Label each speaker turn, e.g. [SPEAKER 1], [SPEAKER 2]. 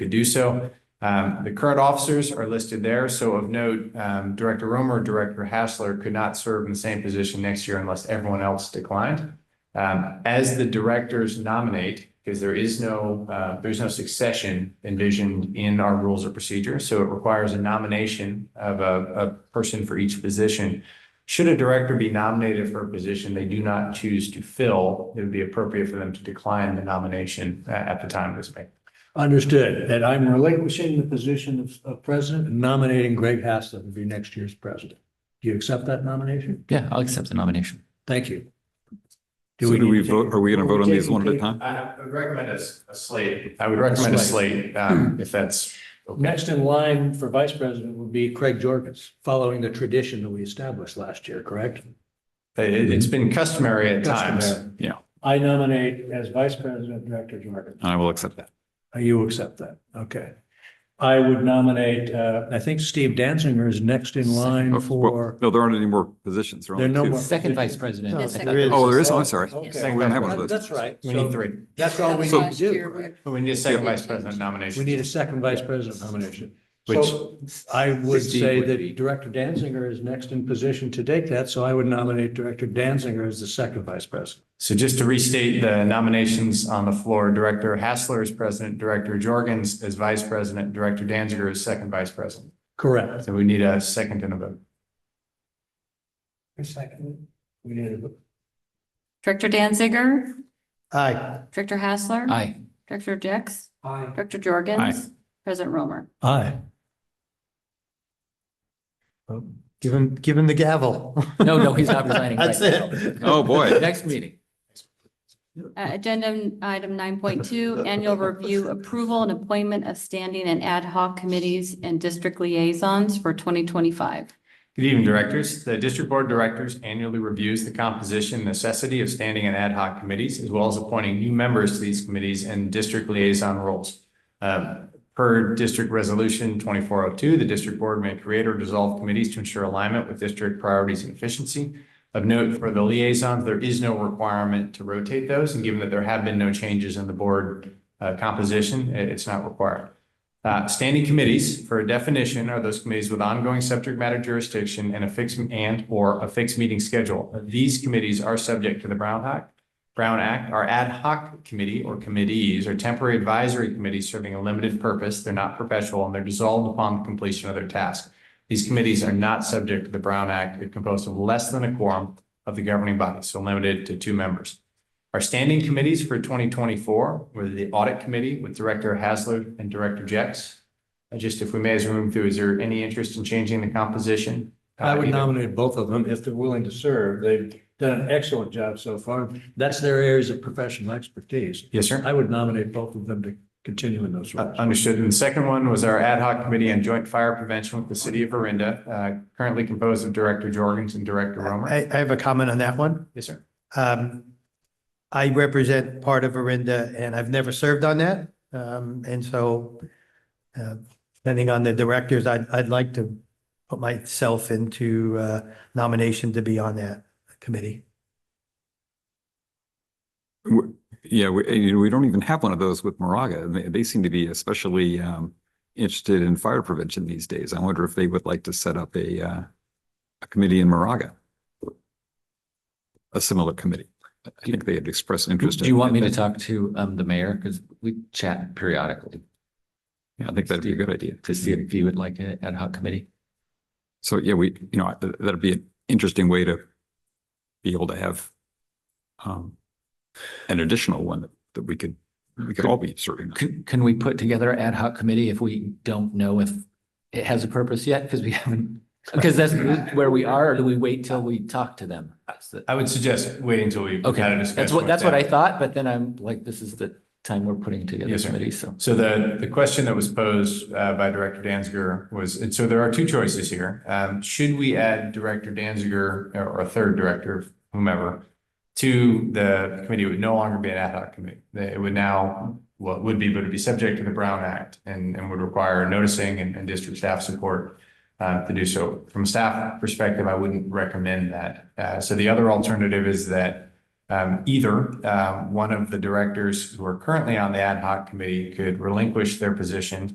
[SPEAKER 1] could do so. Um, the current officers are listed there, so of note, um, Director Romer, Director Hassler could not serve in the same position next year unless everyone else declined. Um, as the directors nominate, because there is no, uh, there's no succession envisioned in our rules of procedure, so it requires a nomination of a, a person for each position. Should a director be nominated for a position they do not choose to fill, it would be appropriate for them to decline the nomination uh, at the time of this meeting.
[SPEAKER 2] Understood, that I'm relinquishing the position of, of president and nominating Greg Haslett to be next year's president. Do you accept that nomination?
[SPEAKER 3] Yeah, I'll accept the nomination.
[SPEAKER 2] Thank you.
[SPEAKER 4] So do
[SPEAKER 2] need
[SPEAKER 4] we
[SPEAKER 2] to
[SPEAKER 4] vote,
[SPEAKER 2] take-
[SPEAKER 4] are we going
[SPEAKER 2] are
[SPEAKER 4] to
[SPEAKER 2] we
[SPEAKER 4] vote on these
[SPEAKER 2] taking
[SPEAKER 4] one at a
[SPEAKER 2] people-
[SPEAKER 4] time?
[SPEAKER 1] I would recommend a, slate. I would recommend a slate, um, if that's okay.
[SPEAKER 2] Next in line for vice president would be Craig Jorgens, following the tradition that we established last year, correct?
[SPEAKER 1] It, it's been customary at times.
[SPEAKER 2] Customary.
[SPEAKER 4] Yeah.
[SPEAKER 2] I nominate as vice president, Director Jorgens.
[SPEAKER 4] I will accept that.
[SPEAKER 2] Uh, You accept that, okay. I would nominate, uh, I think Steve Danziger is next in line
[SPEAKER 4] Oh, Well,
[SPEAKER 2] for.
[SPEAKER 4] No, there aren't any more positions. There are
[SPEAKER 2] There are no
[SPEAKER 4] only
[SPEAKER 2] more-
[SPEAKER 4] two.
[SPEAKER 3] Second vice president.
[SPEAKER 2] No,
[SPEAKER 3] I
[SPEAKER 5] second.
[SPEAKER 3] thought there
[SPEAKER 4] Oh,
[SPEAKER 3] was-
[SPEAKER 4] there is, oh, I'm sorry.
[SPEAKER 2] Okay,
[SPEAKER 1] Second
[SPEAKER 4] We don't have one of those.
[SPEAKER 2] that's right.
[SPEAKER 1] We need
[SPEAKER 2] So
[SPEAKER 1] three.
[SPEAKER 2] That's all we
[SPEAKER 4] So-
[SPEAKER 2] need to do.
[SPEAKER 1] We need a second vice
[SPEAKER 5] Yeah.
[SPEAKER 1] president
[SPEAKER 2] We
[SPEAKER 1] nomination.
[SPEAKER 2] need a second vice president nomination.
[SPEAKER 1] Which-
[SPEAKER 2] So I would
[SPEAKER 1] Steve
[SPEAKER 2] say
[SPEAKER 1] would
[SPEAKER 2] that
[SPEAKER 1] be.
[SPEAKER 2] Director Danziger is next in position to take that, so I would nominate Director Danziger as the second vice president.
[SPEAKER 1] So just to restate the nominations on the floor, Director Hassler is president, Director Jorgens is vice president, Director Danziger is second vice president.
[SPEAKER 2] Correct.
[SPEAKER 1] So we need a second and a vote.
[SPEAKER 2] second. We need a.
[SPEAKER 5] Director Danziger,
[SPEAKER 2] Aye.
[SPEAKER 5] Director Hassler.
[SPEAKER 3] Aye.
[SPEAKER 5] Director Jex,
[SPEAKER 2] Aye.
[SPEAKER 5] Director Jorgens, President Romer.
[SPEAKER 2] Aye.
[SPEAKER 6] Give him, give him the gavel.
[SPEAKER 3] No, no, he's not resigning.
[SPEAKER 6] That's
[SPEAKER 3] right
[SPEAKER 6] it.
[SPEAKER 3] now.
[SPEAKER 4] Oh, boy.
[SPEAKER 3] Next meeting.
[SPEAKER 5] Uh, agenda item nine point two, annual review approval and appointment of standing and ad hoc committees and district liaisons for twenty twenty-five.
[SPEAKER 1] Good evening, directors. The district board of directors annually reviews the composition and necessity of standing and ad hoc committees, as well as appointing new members to these committees and district liaison roles. Um, Per district resolution twenty-four oh two, the district board may create or dissolve committees to ensure alignment with district priorities and efficiency. Of note, for the liaisons, there is no requirement to rotate those, and given that there have been no changes in the board uh, composition, it- it's not required. Uh, standing committees, for a definition, are those committees with ongoing subject matter jurisdiction and a fixed and or a fixed meeting schedule. These committees are subject to the Brown Act. Brown Act, our ad hoc committee or committees are temporary advisory committees serving a limited purpose. They're not perpetual and they're dissolved upon completion of their task. These committees are not subject to the Brown Act. They're composed of less than a quorum of the governing body, so limited to two members. Our standing committees for twenty twenty-four were the Audit Committee with Director Hasler and Director Jex. Uh, Just if we may, as we move through, is there any interest in changing the composition?
[SPEAKER 2] I would
[SPEAKER 1] Uh, either-
[SPEAKER 2] nominate both of them if they're willing to serve. They've done an excellent job so far. That's their areas of professional expertise.
[SPEAKER 1] Yes, sir.
[SPEAKER 2] I would nominate both of them to continue in those roles.
[SPEAKER 1] Uh, Understood. And the second one was our ad hoc committee on joint fire prevention with the city of Arinda, uh, currently composed of Director Jorgens and Director Romer.
[SPEAKER 6] I, I have a comment on that one.
[SPEAKER 1] Yes, sir.
[SPEAKER 6] Um, I represent part of Arinda and I've never served on that. Um, and so, uh, depending on the directors, I'd, I'd like to put myself into, uh, nomination to be on that committee.
[SPEAKER 4] We- Yeah, we, we don't even have one of those with Moraga. They, they seem to be especially um, interested in fire prevention these days. I wonder if they would like to set up a, uh, a committee in Moraga. A similar committee. I think they had expressed interest.
[SPEAKER 3] Do
[SPEAKER 4] in-
[SPEAKER 3] you want me to talk to um the mayor? Because we chat periodically
[SPEAKER 4] Yeah, I think that'd be a good idea.
[SPEAKER 3] to see if he would like an ad hoc committee.
[SPEAKER 4] So, yeah, we, you know, th- that'd be an interesting way to be able to have um, an additional one that- that we could, we could all be serving. on.
[SPEAKER 3] Can can we put together an ad hoc committee if we don't know if it has a purpose yet? Because we haven't, because that's where we are. Or do we wait till we talk to them? That's the-
[SPEAKER 1] I would suggest waiting until we have had a
[SPEAKER 3] Okay,
[SPEAKER 1] discussion.
[SPEAKER 3] that's what,
[SPEAKER 1] with
[SPEAKER 3] that's what
[SPEAKER 1] them.
[SPEAKER 3] I thought, but then I'm like, this is the time we're putting together
[SPEAKER 1] Yes, sir.
[SPEAKER 3] committees, so.
[SPEAKER 1] So the, the question that was posed uh, by Director Danziger was, and so there are two choices here. Um, Should we add Director Danziger uh, or or a third director, whomever, to the committee It would no longer be an ad hoc committee? They- It would now, what would be, but it'd be subject to the Brown Act and, and would require noticing and, and district staff support uh, to do so. From a staff perspective, I wouldn't recommend that. Uh, So the other alternative is that uh, um, either um, one of the directors who are currently on the ad hoc committee could relinquish their position